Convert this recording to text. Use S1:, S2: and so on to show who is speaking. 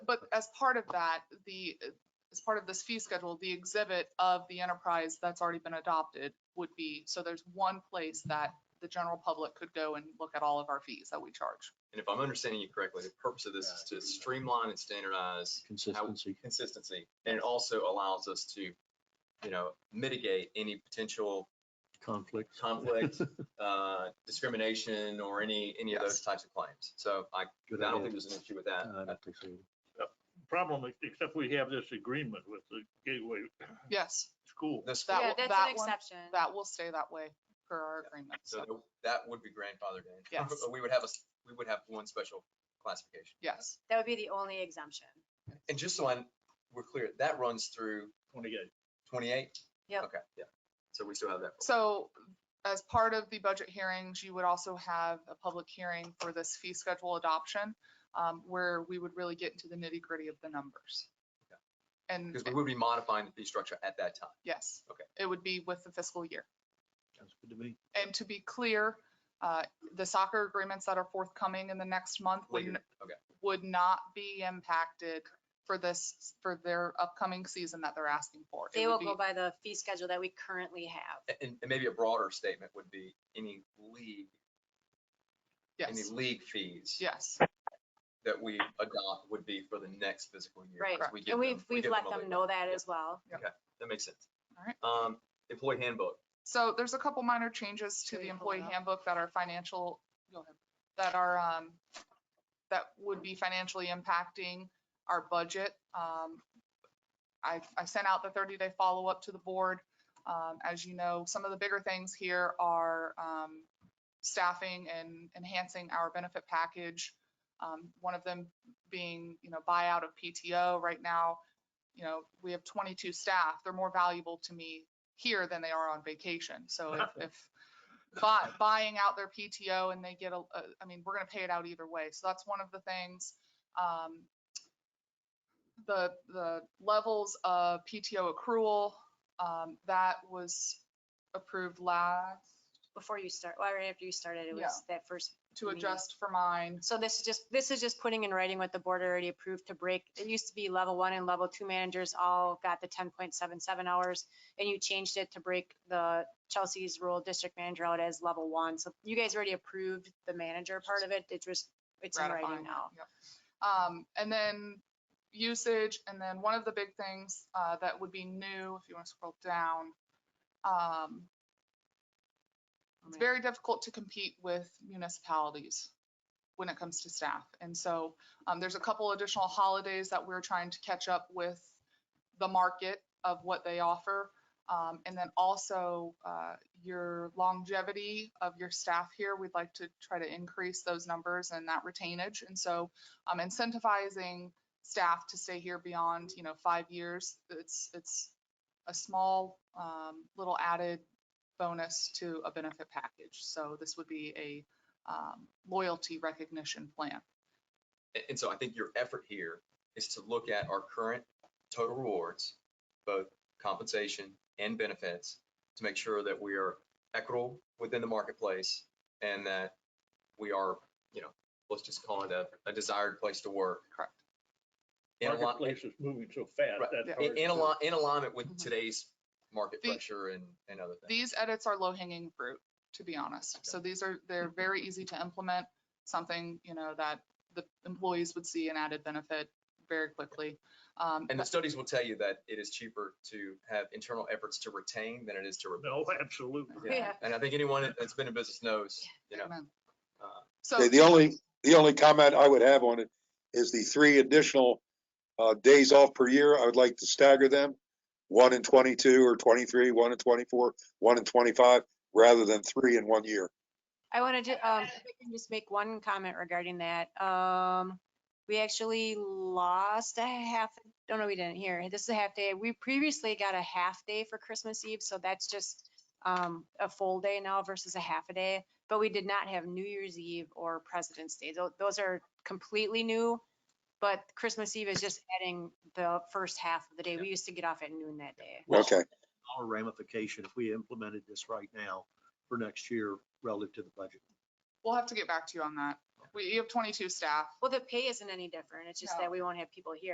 S1: but as part of that, the, as part of this fee schedule, the exhibit of the enterprise that's already been adopted would be, so there's one place that the general public could go and look at all of our fees that we charge.
S2: And if I'm understanding you correctly, the purpose of this is to streamline and standardize
S3: Consistency.
S2: consistency. And it also allows us to, you know, mitigate any potential
S3: Conflict.
S2: conflict, uh, discrimination or any, any of those types of claims. So I, I
S3: Good
S2: don't
S3: idea. Uh,
S2: think there's an issue with that.
S3: I don't think so.
S4: problem, ex- except we have this agreement with the Gateway
S1: Yes,
S4: School.
S2: This,
S1: That
S5: Yeah,
S1: will-
S5: that's an
S1: one-
S5: exception.
S1: that will stay that way per our agreement.
S2: so
S1: So,
S2: that would be grandfathered in.
S1: Yes.
S2: We would have a, s- we would have one special classification.
S1: yes,
S5: That would be the only exemption.
S2: And just so I'm, we're clear, that runs through
S4: Twenty-eight.
S2: twenty-eight?
S5: Yep.
S2: Okay, yeah. So we still have that.
S1: so as part of the budget hearings, you would also have a public hearing for this fee schedule adoption, um, where we would really get into the nitty gritty of the numbers. And,
S2: Because we would be modifying the fee structure at that time.
S1: yes.
S2: Okay.
S1: It would be with the fiscal year.
S3: Sounds good to me.
S1: And to be clear, uh, the soccer agreements that are forthcoming in the next month would,
S2: Later,
S1: n-
S2: okay.
S1: would not be impacted for this, for their upcoming season that they're asking for. It
S5: They
S1: would
S5: will
S1: be-
S5: go by the fee schedule that we currently have.
S2: A- And, and maybe a broader statement would be any league, any
S1: Yes,
S2: league fees
S1: yes,
S2: that we adopt would be for the next fiscal year.
S5: Right.
S2: 'cause we give
S5: And we've,
S2: them- we
S5: we've
S2: give
S5: let
S2: a
S5: them
S2: lead.
S5: know that
S2: Yeah.
S5: as well.
S2: That makes sense.
S1: all right.
S2: Um, employee handbook,
S1: So there's a couple minor changes to
S5: Can
S1: the
S5: we pull it
S1: employee
S5: up?
S1: handbook that are financial, go ahead, that are, um, that would be financially impacting our budget. Um, I, I sent out the thirty-day follow-up to the board. Um, as you know, some of the bigger things here are, um, staffing and enhancing our benefit package. Um, one of them being, you know, buyout of PTO. Right now, you know, we have twenty-two staff. They're more valuable to me here than they are on vacation. So if, if buy, buying out their PTO and they get a, a- I mean, we're gonna pay it out either way. So that's one of the things. Um, The, the levels of PTO accrual, um, that was approved last
S5: Before you start, well, right after you started, it was that first.
S1: to
S5: Me.
S1: adjust for mine.
S5: So this is just, this is just putting in writing what the board already approved to break. It used to be level one and level two managers all got the ten point seven seven hours. And you changed it to break the Chelsea's rural district manager out as level one. So you guys already approved the manager part of it. It's just, it's in
S1: ratifying
S5: writing
S1: it,
S5: now.
S1: yep. Um, and then usage, and then one of the big things, uh, that would be new, if you want to scroll down. Um, it's very difficult to compete with municipalities when it comes to staff. And so, um, there's a couple additional holidays that we're trying to catch up with the market of what they offer. Um, and then also, uh, your longevity of your staff here, we'd like to try to increase those numbers and that retainage. And so um, incentivizing staff to stay here beyond, you know, five years, it's, it's a small, um, little added bonus to a benefit package. So this would be a, um, loyalty recognition plan.
S2: A- and so I think your effort here is to look at our current total rewards, both compensation and benefits, to make sure that we are equitable within the marketplace and that we are, you know, let's just call it a, a desired place to work.
S1: Correct.
S2: In alignment-
S4: Marketplace is moving so fast.
S2: Right.
S4: that's
S1: Yeah.
S2: in,
S4: hard
S2: in
S4: to-
S2: ali- in alignment with
S1: Mhm.
S2: today's market
S1: The-
S2: pressure and, and other things.
S1: These edits are low hanging fruit, to be honest. So these are,
S2: Mm-hmm.
S1: they're very easy to implement, something, you know, that the employees would see an added benefit very quickly. Um,
S2: And the studies will tell you that it is cheaper to have internal efforts to retain than it is to replace.
S4: No, absolutely.
S2: Yeah.
S5: Yeah.
S2: And I think anyone that's been in business knows, you know,
S1: Amen.
S2: uh,
S1: So.
S6: Okay, The only, the only comment I would have on it is the three additional uh, days off per year, I would like to stagger them. One in twenty-two or twenty-three, one in twenty-four, one in twenty-five, rather than three in one year.
S5: I wanted to, um, if I can just make one comment regarding that. Um, we actually lost a half, oh, no, no, we didn't here. This is a half day. We previously got a half day for Christmas Eve, so that's just, um, a full day now versus a half a day. But we did not have New Year's Eve or President's Day. Tho- Those are completely new. But Christmas Eve is just adding the first half of the day. We used to get off at noon that day.
S3: Well,
S6: Okay,
S3: Our ramification, if we implemented this right now for next year relative to the budget.
S1: We'll have to get back to you on that. We, you have twenty-two staff.
S5: Well, the pay isn't any different. It's just
S1: No.
S5: that we won't have people here.